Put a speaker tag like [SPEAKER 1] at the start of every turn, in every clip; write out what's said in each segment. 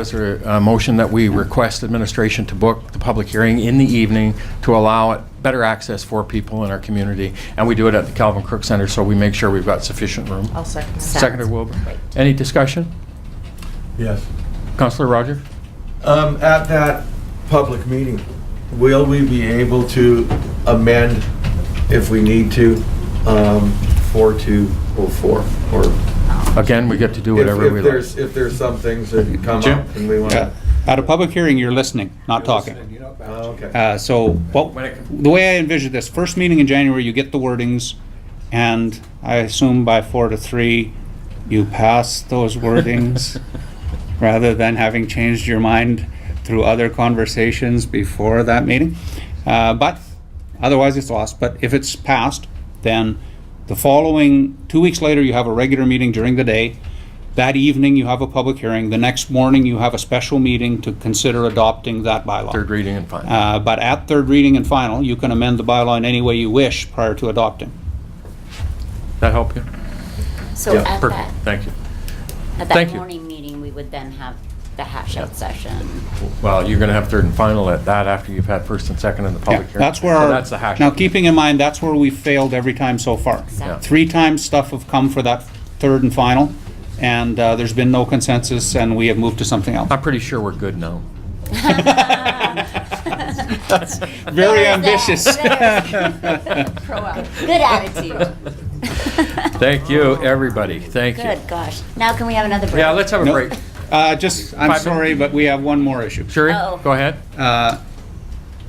[SPEAKER 1] Is there a motion that we request administration to book the public hearing in the evening to allow it better access for people in our community? And we do it at the Calvin Crook Center, so we make sure we've got sufficient room.
[SPEAKER 2] I'll second that.
[SPEAKER 1] Seconded Wilbur. Any discussion?
[SPEAKER 3] Yes.
[SPEAKER 1] Counselor Roger?
[SPEAKER 3] Um, at that public meeting, will we be able to amend if we need to, um, four two oh four? Or
[SPEAKER 1] Again, we get to do
[SPEAKER 3] if,
[SPEAKER 1] whatever we
[SPEAKER 3] if
[SPEAKER 1] like.
[SPEAKER 3] there's, if there's some things that come
[SPEAKER 4] Jim?
[SPEAKER 3] up and we want
[SPEAKER 4] Uh,
[SPEAKER 3] to.
[SPEAKER 4] At a public hearing, you're listening, not talking.
[SPEAKER 3] Okay.
[SPEAKER 4] Uh, So, well, the way I envision this, first meeting in January, you get the wordings, and I assume by four to three, you pass those wordings, rather than having changed your mind through other conversations before that meeting. Uh, But, otherwise, it's lost. But if it's passed, then the following, two weeks later, you have a regular meeting during the day. That evening, you have a public hearing. The next morning, you have a special meeting to consider adopting that bylaw.
[SPEAKER 1] Third reading and final.
[SPEAKER 4] Uh, But at third reading and final, you can amend the bylaw in any way you wish prior to adopting.
[SPEAKER 1] That help you?
[SPEAKER 5] So
[SPEAKER 3] Yeah,
[SPEAKER 5] at
[SPEAKER 1] Perfect.
[SPEAKER 5] that,
[SPEAKER 1] Thank you.
[SPEAKER 5] at
[SPEAKER 1] Thank
[SPEAKER 5] that
[SPEAKER 1] you.
[SPEAKER 5] morning meeting, we would then have the hash out session.
[SPEAKER 1] Well, you're going to have third and final at that after you've had first and second in the
[SPEAKER 4] Yeah,
[SPEAKER 1] public hearing.
[SPEAKER 4] That's where,
[SPEAKER 1] So
[SPEAKER 4] our-
[SPEAKER 1] that's the hash.
[SPEAKER 4] now keeping in mind, that's where we failed every time so far.
[SPEAKER 5] Exactly.
[SPEAKER 4] Three times stuff have come for that third and final, and uh, there's been no consensus, and we have moved to something else.
[SPEAKER 1] I'm pretty sure we're good now.
[SPEAKER 4] That's Very
[SPEAKER 5] There's that.
[SPEAKER 4] ambitious.
[SPEAKER 5] There's- Good attitude.
[SPEAKER 1] Thank you, everybody. Thank you.
[SPEAKER 5] Good, gosh. Now can we have another break?
[SPEAKER 1] Yeah, let's have a
[SPEAKER 4] No.
[SPEAKER 1] break.
[SPEAKER 4] Uh, Just, I'm
[SPEAKER 1] Five minutes.
[SPEAKER 4] sorry, but we have one more issue.
[SPEAKER 1] Sherry,
[SPEAKER 5] Uh-oh.
[SPEAKER 1] go ahead.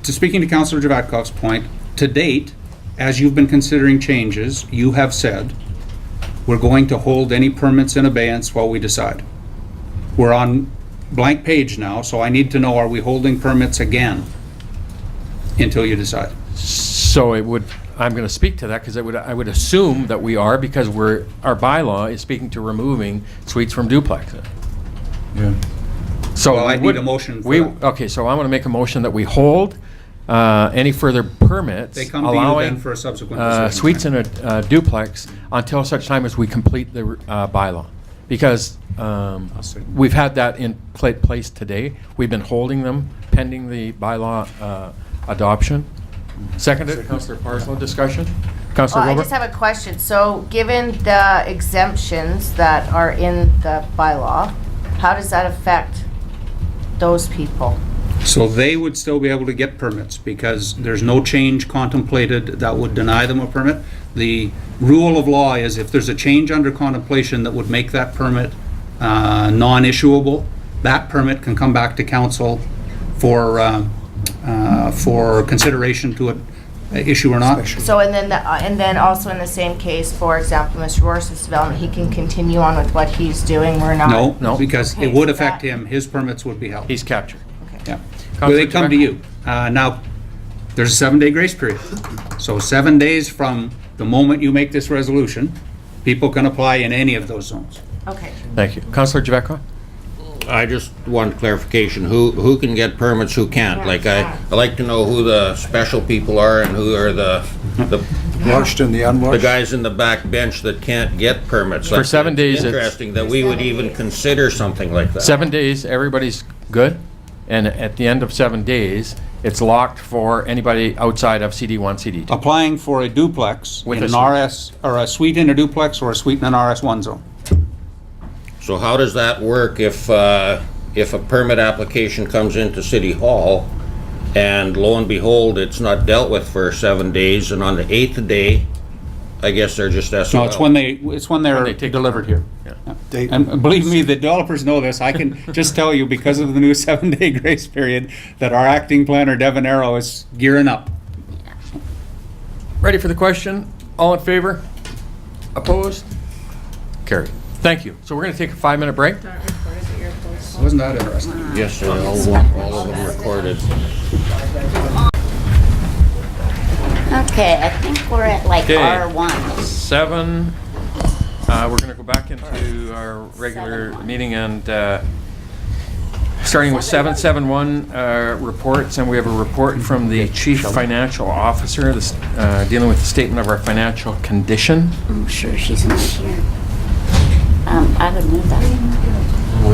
[SPEAKER 4] to speaking to Councillor Javatkov's point, to date, as you've been considering changes, you have said, we're going to hold any permits in abeyance while we decide. We're on blank page now, so I need to know, are we holding permits again until you decide?
[SPEAKER 1] So it would, I'm going to speak to that because I would, I would assume that we are because we're, our bylaw is speaking to removing suites from duplexes. So
[SPEAKER 4] Well, I
[SPEAKER 1] we
[SPEAKER 4] need
[SPEAKER 1] would-
[SPEAKER 4] a motion for
[SPEAKER 1] We,
[SPEAKER 4] that.
[SPEAKER 1] okay, so I want to make a motion that we hold uh, any further permits
[SPEAKER 4] They come to you then
[SPEAKER 1] allowing
[SPEAKER 4] for a subsequent
[SPEAKER 1] uh,
[SPEAKER 4] decision.
[SPEAKER 1] suites in a uh, duplex until such time as we complete the uh, bylaw. Because um,
[SPEAKER 4] see.
[SPEAKER 1] we've had that in pla- place today. We've been holding them pending the bylaw uh, adoption. Seconded, Councillor Parslow, discussion? Councillor
[SPEAKER 2] Well, Oh, I
[SPEAKER 1] Wilbur?
[SPEAKER 2] just have a question. So, given the exemptions that are in the bylaw, how does that affect those people?
[SPEAKER 4] So they would still be able to get permits because there's no change contemplated that would deny them a permit. The rule of law is if there's a change under contemplation that would make that permit uh, non-issuable, that permit can come back to council for, um, uh, for consideration to uh, issue or not.
[SPEAKER 2] So, and then, the- uh, and then also in the same case, for example, Mr. Rors's development, he can continue on with what he's doing, we're not.
[SPEAKER 4] No,
[SPEAKER 1] No.
[SPEAKER 4] because
[SPEAKER 2] Okay,
[SPEAKER 4] it would
[SPEAKER 2] so
[SPEAKER 4] affect
[SPEAKER 2] that-
[SPEAKER 4] him, his permits would be held.
[SPEAKER 1] He's captured.
[SPEAKER 4] Yeah. Well, they come to
[SPEAKER 1] Counselor
[SPEAKER 4] you. Uh, Now, there's a seven-day grace period. So seven days from the moment you make this resolution, people can apply in any of those zones.
[SPEAKER 2] Okay.
[SPEAKER 1] Thank you. Councillor Javetkov?
[SPEAKER 6] I just want clarification, who, who can get permits, who can't? Like, I, I like to know who the special people are and who are the, the,
[SPEAKER 7] Washed and the
[SPEAKER 6] the
[SPEAKER 7] unwashed?
[SPEAKER 6] guys in the back bench that can't get permits.
[SPEAKER 1] For seven days, it's-
[SPEAKER 6] Interesting that we would even consider something like that.
[SPEAKER 1] Seven days, everybody's good, and at the end of seven days, it's locked for anybody outside of CD1, CD2.
[SPEAKER 4] Applying for a duplex
[SPEAKER 1] With
[SPEAKER 4] in
[SPEAKER 1] a
[SPEAKER 4] an
[SPEAKER 1] suite.
[SPEAKER 4] RS, or a suite in a duplex or a suite in an RS1 zone.
[SPEAKER 6] So how does that work if, uh, if a permit application comes into City Hall and lo and behold, it's not dealt with for seven days and on the eighth day, I guess they're just SOL?
[SPEAKER 4] No, it's when they, it's when
[SPEAKER 1] they
[SPEAKER 4] they're
[SPEAKER 1] take-
[SPEAKER 4] delivered here.
[SPEAKER 7] They-
[SPEAKER 4] And believe me, the developers know this. I can just tell you, because of the new seven-day grace period, that our acting planner, Devin Arrow, is gearing up.
[SPEAKER 1] Ready for the question? All in favor? Opposed? Carried. Thank you. So we're going to take a five-minute break.
[SPEAKER 4] Wasn't that interesting?
[SPEAKER 6] Yes, sir, all, all of them recorded.
[SPEAKER 5] Okay, I think we're at like
[SPEAKER 1] Okay.
[SPEAKER 5] R1.
[SPEAKER 1] Seven, uh, we're going to go back into our regular meeting and uh, starting with 771 uh, reports, and we have a report from the Chief Financial Officer this, uh, dealing with the statement of our financial condition.
[SPEAKER 5] I'm sure she's not here. Um, I would move that.